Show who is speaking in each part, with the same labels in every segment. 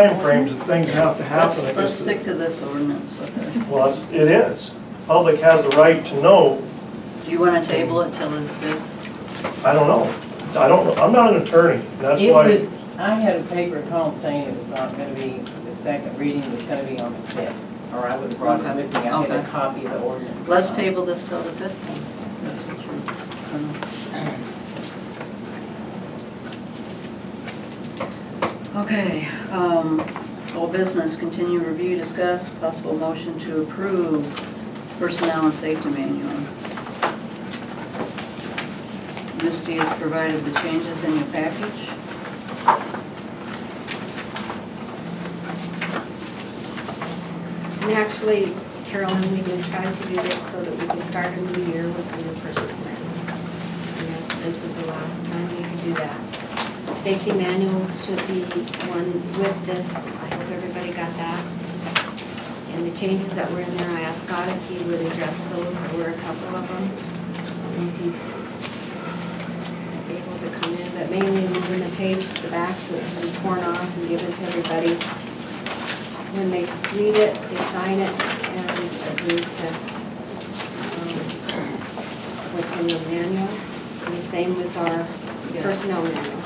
Speaker 1: timeframes of things have to happen.
Speaker 2: Let's,
Speaker 1: I guess
Speaker 2: let's
Speaker 1: that-
Speaker 2: stick to this ordinance, okay?
Speaker 1: Well, it's- it is. Public has the right to know,
Speaker 2: Do you wanna table it till the fifth?
Speaker 1: I don't know. I don't, know. I'm not an attorney, that's
Speaker 3: It
Speaker 1: why,
Speaker 3: was, I had a paper at home saying it was not gonna be, the second reading was gonna be on the fifth, or I would have brought it with me, I had
Speaker 2: Okay.
Speaker 3: a copy of the ordinance.
Speaker 2: Let's table this till the fifth then. That's what you're gonna- Okay, um, all business, continue review, discuss, possible motion to approve personnel and safety manual. Misty has provided the changes in your package.
Speaker 4: And actually, Carolyn, we did try to do this so that we could start a new year with a new person plan. And that's, this was the last time we could do that. Safety manual should be one with this. I hope everybody got that. And the changes that were in there, I asked God if he would address those. There were a couple of them. And if he's able to come in, but mainly moving the page to the back so it can be torn off and given to everybody when they read it, they sign it and agree to um, what's in the manual. And the same with our personnel manual.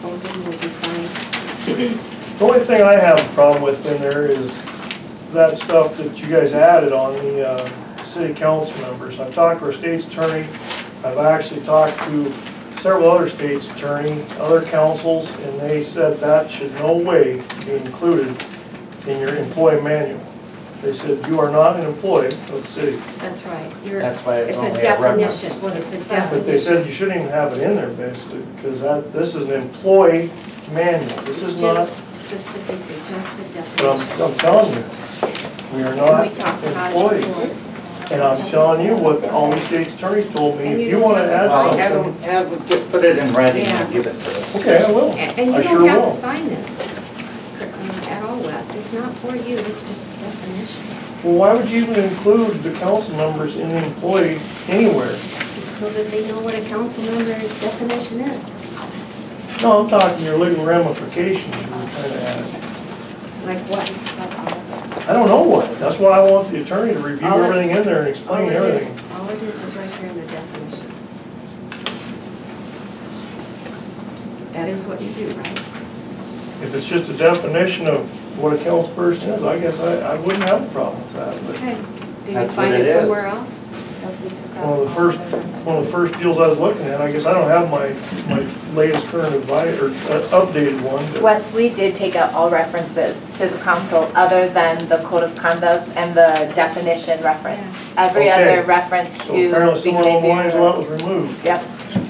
Speaker 4: Both of them will be signed.
Speaker 1: the only thing I have a problem with in there is that stuff that you guys added on the, uh, city council members. I've talked to our state's attorney, I've actually talked to several other state's attorney, other councils, and they said that should no way be included in your employee manual. They said, you are not an employee of the city.
Speaker 4: That's right. You're-
Speaker 5: That's why it's only a reference.
Speaker 4: It's a definition. It's a
Speaker 1: But they
Speaker 4: definition.
Speaker 1: said you shouldn't even have it in there basically, because that, this is an employee manual, this
Speaker 4: It's
Speaker 1: is not,
Speaker 4: just specific, it's just a
Speaker 1: but I'm,
Speaker 4: definition.
Speaker 1: I'm telling you, we are not
Speaker 4: We talked about it before.
Speaker 1: employees. And I'm telling you what the Almy State's attorney told me,
Speaker 4: And
Speaker 1: if
Speaker 4: you
Speaker 1: you
Speaker 4: don't
Speaker 1: wanna
Speaker 4: have to
Speaker 1: add
Speaker 4: sign
Speaker 5: Well, have
Speaker 1: something,
Speaker 5: them- have them get- put it in writing
Speaker 4: Yeah.
Speaker 5: and give it to us.
Speaker 1: okay, I will,
Speaker 4: And and you
Speaker 1: I sure
Speaker 4: don't have to
Speaker 1: will.
Speaker 4: sign this um, at all, Wes. It's not for you, it's just a definition.
Speaker 1: Well, why would you even include the council members in the employee anywhere?
Speaker 4: So that they know what a council member's definition is.
Speaker 1: No, I'm talking your legal ramifications, you were trying to add.
Speaker 4: Like what?
Speaker 1: I don't know what, that's why I want the attorney to review
Speaker 4: All it-
Speaker 1: everything in there and
Speaker 4: All
Speaker 1: explain
Speaker 4: it is,
Speaker 1: everything.
Speaker 4: all it is is right here in the definitions. That is what you do, right?
Speaker 1: If it's just a definition of what a council person is, I guess I, I wouldn't have a problem with that, but
Speaker 4: Okay. Did you
Speaker 5: That's
Speaker 4: find
Speaker 5: what
Speaker 4: it
Speaker 5: it is.
Speaker 4: somewhere else?
Speaker 1: one of the first, one of the first deals I was looking at, I guess I don't have my, my latest current advice, or uh, updated one, but
Speaker 6: Wes, we did take out all references to the council other than the code of conduct and the definition reference. Every
Speaker 1: Okay.
Speaker 6: other reference to.
Speaker 1: so apparently somewhere
Speaker 6: the
Speaker 1: along the lines,
Speaker 6: behavior-
Speaker 1: that was removed.
Speaker 6: Yep.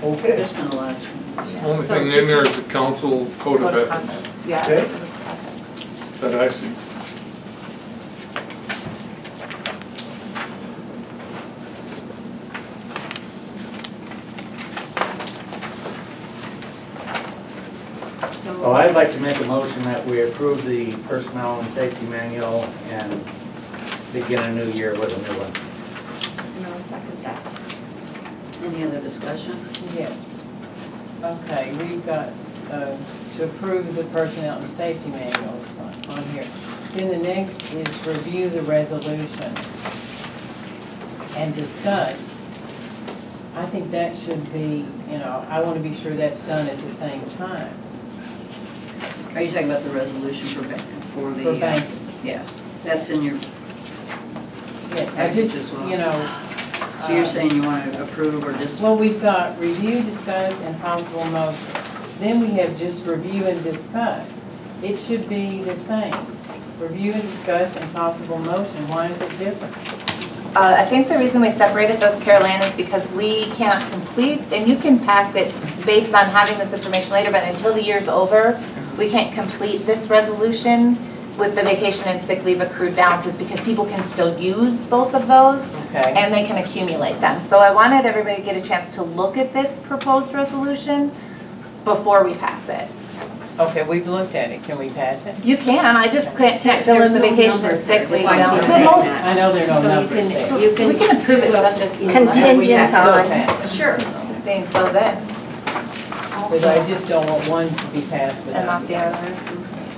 Speaker 1: Okay,
Speaker 2: There's been a lot of changes.
Speaker 7: Only
Speaker 4: So
Speaker 7: thing
Speaker 4: did
Speaker 7: in there is the council code of ethics
Speaker 6: conduct, Yeah.
Speaker 1: Okay.
Speaker 6: code of ethics.
Speaker 7: that I see.
Speaker 4: So,
Speaker 5: Well, I'd like to make a motion that we approve the personnel and safety manual and begin a new year with a new one.
Speaker 4: and I'll second that.
Speaker 2: Any other discussion?
Speaker 3: Yes. Okay, we've got uh, to approve the personnel and safety manuals on- on here. Then the next is review the resolution and discuss. I think that should be, you know, I want to be sure that's done at the same time
Speaker 2: Are you talking about the resolution for, ba- for the?
Speaker 3: for
Speaker 2: uh,
Speaker 3: banking.
Speaker 2: Yeah, that's in your,
Speaker 3: Yes, I just,
Speaker 2: Package as well.
Speaker 3: you know,
Speaker 2: so you're saying you want to approve or just,
Speaker 3: well, we've got review, discuss, and possible motion. Then we have just review and discuss. It should be the same. Review and discuss and possible motion. Why is it different?
Speaker 6: Uh, I think the reason we separated those, Carolyn, is because we cannot complete, and you can pass it based on having this information later, but until the year's over, we can't complete this resolution with the vacation and sick leave accrued balances because people can still use both of those
Speaker 3: Okay.
Speaker 6: and they can accumulate them. So I wanted everybody to get a chance to look at this proposed resolution before we pass it.
Speaker 3: Okay, we've looked at it. Can we pass it?
Speaker 6: You can, I just can't can't fill in the
Speaker 4: There's no
Speaker 6: vacation or
Speaker 4: numbers
Speaker 6: sick
Speaker 4: there.
Speaker 6: leave
Speaker 4: Why
Speaker 6: balance.
Speaker 4: should I say
Speaker 6: Most-
Speaker 4: that?
Speaker 3: I know there are no
Speaker 4: So you
Speaker 3: numbers
Speaker 4: can,
Speaker 3: there.
Speaker 4: you can.
Speaker 6: We can approve it subject to- Contingent on-
Speaker 3: Okay.
Speaker 4: Sure.
Speaker 6: Being filled in
Speaker 3: Because I just don't want one to be passed
Speaker 6: and
Speaker 3: without.
Speaker 6: not the other.